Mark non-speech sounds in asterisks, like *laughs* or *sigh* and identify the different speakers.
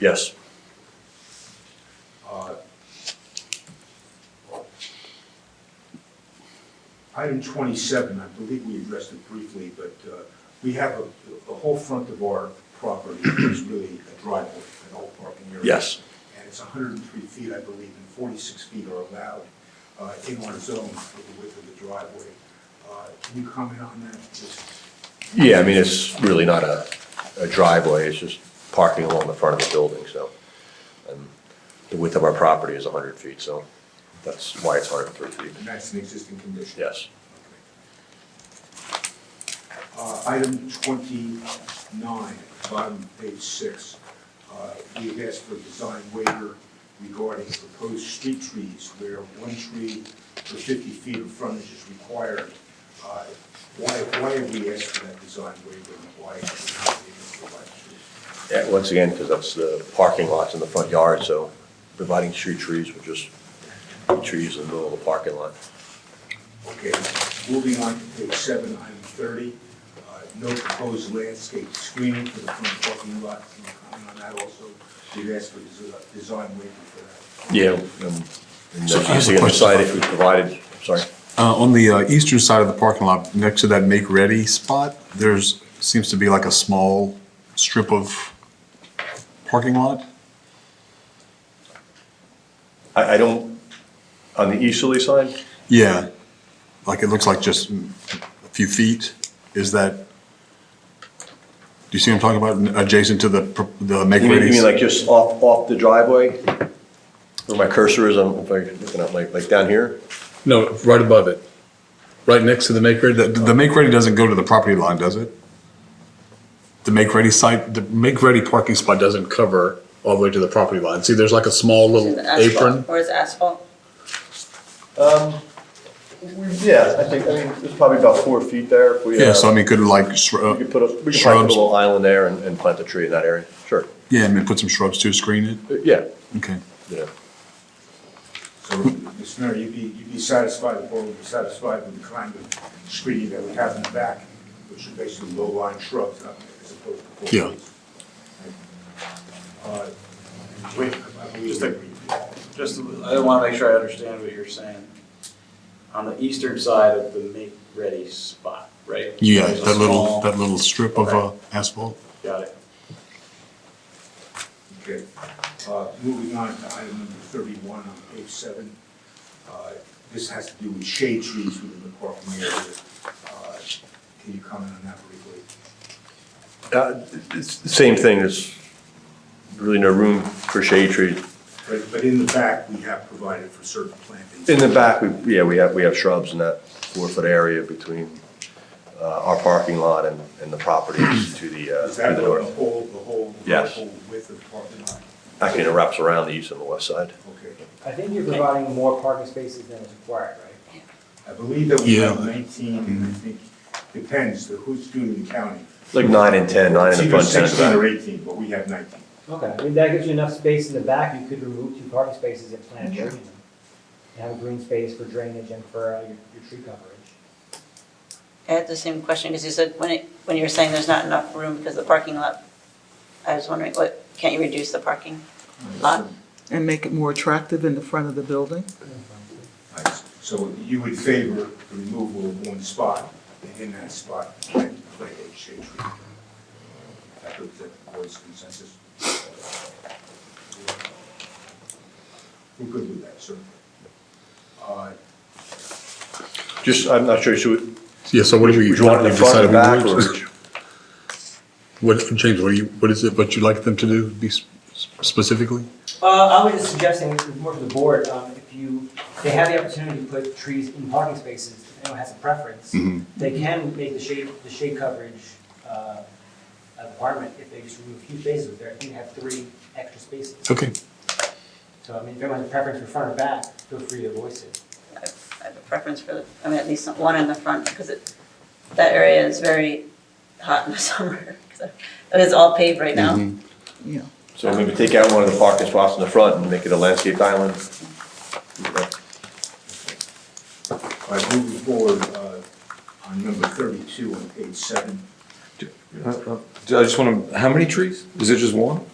Speaker 1: Yes.
Speaker 2: Uh, Item twenty-seven, I believe we addressed it briefly, but uh, we have a, the whole front of our property is really a driveway, an old parking area.
Speaker 1: Yes.
Speaker 2: And it's hundred and three feet, I believe, and forty-six feet are allowed uh, in our zone for the width of the driveway. Uh, Can you comment on that? Just-
Speaker 3: Yeah, I mean, it's really not a a driveway, it's just parking along the front of the building, so. and The width of our property is 100 feet, so that's why it's 103 feet.
Speaker 2: And that's an existing condition?
Speaker 3: Yes.
Speaker 2: Uh, Item 29, bottom of page six. Uh, We have asked for a design waiver regarding proposed street trees where one tree for 50 feet of frontage is required. Uh, Why, why have we asked for that design waiver and why have we not been able to provide trees?
Speaker 3: Yeah, Once again, because that's the parking lots in the front yard, so providing street trees would just be trees in the middle of the parking lot.
Speaker 2: Okay, moving on to page seven, item thirty, uh, no proposed landscape screening for the front parking lot. Can you comment on that also? We've asked for desi- design waiver for that.
Speaker 3: Yeah. And
Speaker 4: So I
Speaker 3: that's
Speaker 4: have a
Speaker 3: easy to
Speaker 4: question.
Speaker 3: decide if we provided, sorry.
Speaker 4: Uh, on the uh, eastern side of the parking lot, next to that make ready spot, there's, seems to be like a small strip of parking lot.
Speaker 3: I, I don't, on the easterly side?
Speaker 4: Yeah, like it looks like just a few feet. Is that, do you see what I'm talking about? Adjacent to the, pr- the make
Speaker 3: You mean, you
Speaker 4: ready?
Speaker 3: mean like just off, off the driveway? Where my cursor is, I'm, if I'm looking up, like, like down here?
Speaker 5: No, right above it, right next to the make ready.
Speaker 4: The, the make ready doesn't go to the property line, does it?
Speaker 5: The make ready site, the make ready parking spot doesn't cover all the way to the property line. See, there's like a small
Speaker 6: Is
Speaker 5: little
Speaker 6: it asphalt?
Speaker 5: apron.
Speaker 6: Or is it asphalt?
Speaker 3: Yeah, I think, I mean, there's probably about four feet there. if we, uh,
Speaker 4: Yeah, so I mean, could like, uh,
Speaker 3: We
Speaker 4: shru-
Speaker 3: could put a, we could plant a
Speaker 4: shrubs.
Speaker 3: little island there and, and plant a tree in that area, sure,
Speaker 4: yeah, I mean, put some shrubs to screen it?
Speaker 3: Uh, yeah,
Speaker 4: Okay.
Speaker 3: you know.
Speaker 2: So, Mr. Mayor, you'd be, you'd be satisfied, the board would be satisfied with the kind of screening that we have in the back, which are basically low-lying shrubs, not- as opposed to full
Speaker 4: Yeah.
Speaker 2: trees. Uh, Wait, I believe.
Speaker 7: Just a- Just, I want to make sure I understand what you're saying. On the eastern side of the make-ready spot, right?
Speaker 4: Yeah,
Speaker 7: There's a
Speaker 4: that little,
Speaker 7: small-
Speaker 4: that little strip of uh, asphalt.
Speaker 7: Got it.
Speaker 2: Okay, Uh, moving on to item number thirty-one on page seven. Uh, This has to do with shade trees within the parking area. Uh, Can you comment on that briefly?
Speaker 3: Uh, it's the same thing, there's really no room for shade trees.
Speaker 2: But, but in the back, we have provided for certain plantings.
Speaker 3: In the back, we, yeah, we have, we have shrubs in that four-foot area between, uh, our parking lot and, and the properties to the, uh,
Speaker 2: Is
Speaker 3: to
Speaker 2: that
Speaker 3: the
Speaker 2: the
Speaker 3: north.
Speaker 2: whole, the whole, the
Speaker 3: Yes.
Speaker 2: whole width of the parking lot?
Speaker 3: Actually, it wraps around the east and the west side.
Speaker 2: Okay.
Speaker 8: I think you're providing more parking spaces than is required, right?
Speaker 2: I believe that we have
Speaker 4: Yeah.
Speaker 2: nineteen, and I think, depends, the who's doing the counting.
Speaker 3: Like nine and ten, nine in the front,
Speaker 2: It's either
Speaker 3: ten in the
Speaker 2: sixteen
Speaker 3: back.
Speaker 2: or eighteen, but we have nineteen.
Speaker 8: Okay, I mean, that gives you enough space in the back, you could remove two parking spaces and plant a tree in them. And have a green space for drainage and for uh, your, your tree coverage.
Speaker 6: I had the same question, because you said, when it, when you were saying there's not enough room because the parking lot, I was wondering, what, can't you reduce the parking lot?
Speaker 9: and make it more attractive in the front of the building.
Speaker 2: Right, So you would favor the removal of one spot, and in that spot, plant plant a shade tree. I hope that the board's consensus. We're good with that, certainly. Uh,
Speaker 3: Just, I'm not sure, should we?
Speaker 5: Yeah, so what do we,
Speaker 3: would you want it
Speaker 5: we
Speaker 3: in the front or
Speaker 5: decided
Speaker 3: the back?
Speaker 5: we
Speaker 3: or
Speaker 5: would.
Speaker 3: would you-
Speaker 5: What, James, what do you, what is it, what you'd like them to do, be s- specifically?
Speaker 8: Uh, I was just suggesting, more to the board, um, if you, they have the opportunity to put trees in parking spaces, if anyone has a preference, they can make the shade, the shade coverage, uh, a requirement if they just remove a few spaces with there, you have three extra spaces.
Speaker 5: Okay.
Speaker 8: So, I mean, if anyone has a preference for front or back, feel free to voice it.
Speaker 6: I have a preference for, the I mean, at least one in the front, because it, that area is very hot in the *laughs* summer. so- It is all paved right now.
Speaker 9: You know,
Speaker 3: So maybe take out one of the parking spots in the front and make it a landscaped island?
Speaker 10: Uh,
Speaker 2: All right, moving forward, uh, on number thirty-two on page seven,
Speaker 10: uh, I just want to, how many trees? Is it just one?